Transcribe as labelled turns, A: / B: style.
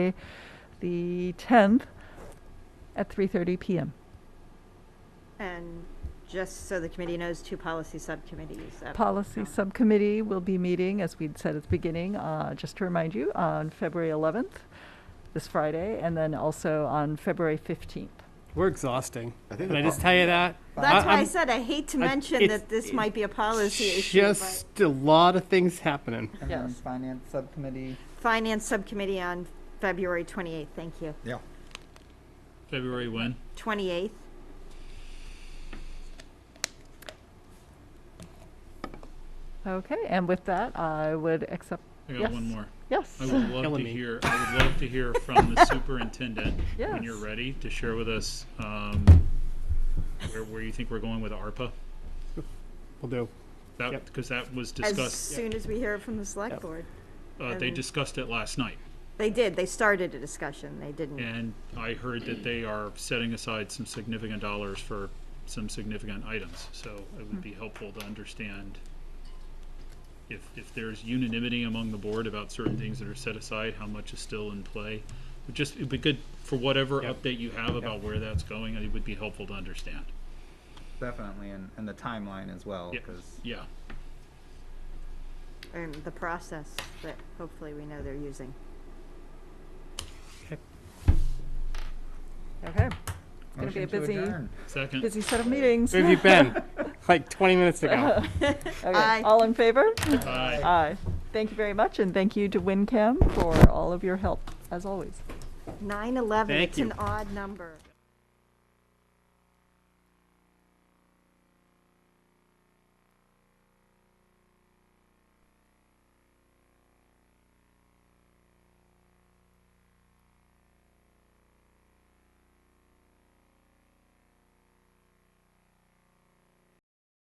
A: the 10th at 3:30 PM.
B: And just so the committee knows, two policy subcommittees. up-
A: Policy
B: um,
A: Subcommittee will be meeting, as we'd said at the beginning, uh, just to remind you, on February 11th, this Friday, and then also on February 15th.
C: We're exhausting.
D: I think
C: Can
D: the
C: I just
D: pro-
C: tell you that?
B: That's why I
C: I'm-
B: said I hate to
C: I-
B: mention
C: it's-
B: that this might be a policy issue. but-
C: Just a lot of things happening.
A: Yes.
E: Everyone's finance subcommittee.
B: Finance Subcommittee on February 28th, thank you.
D: Yeah.
F: February when?
B: 28th,
A: Okay, and with that, I would accept,
F: I got
A: Yes.
F: one more.
A: yes.
F: I would love
C: Killing
F: to
C: me.
F: hear. I would love to hear from the superintendent when you're
A: Yes.
F: ready to share with us um, where where you think we're going with ARPA.
C: We'll do.
F: That
C: Yep.
F: because that was
B: as
F: discussed.
B: soon as we hear from the select board.
F: Uh, they
B: and-
F: discussed it last night,
B: They did, they started a discussion, they didn't.
F: and I heard that they are setting aside some significant dollars for some significant items. So it would be helpful to understand. If, if there's unanimity among the board about certain things that are set aside, how much is still in play, But just it'd be good for whatever
C: Yep.
F: update you have about where that's going. It would be helpful to understand.
E: Definitely, and, and the timeline as well,
F: Yeah.
E: because
F: Yeah.
B: And um, the process that hopefully we know they're using.
A: Okay, gonna be a
E: motion to
A: busy-
E: adjourn.
F: Second.
A: busy set of meetings.
C: Where have you been? Like 20 minutes ago.
A: Okay,
B: Aye.
A: All in favor?
F: Aye.
A: Aye. Thank you very much, and thank you to WinCam for all of your help, as always.
B: 9/11,
C: Thank
B: it's an
C: you.
B: odd number.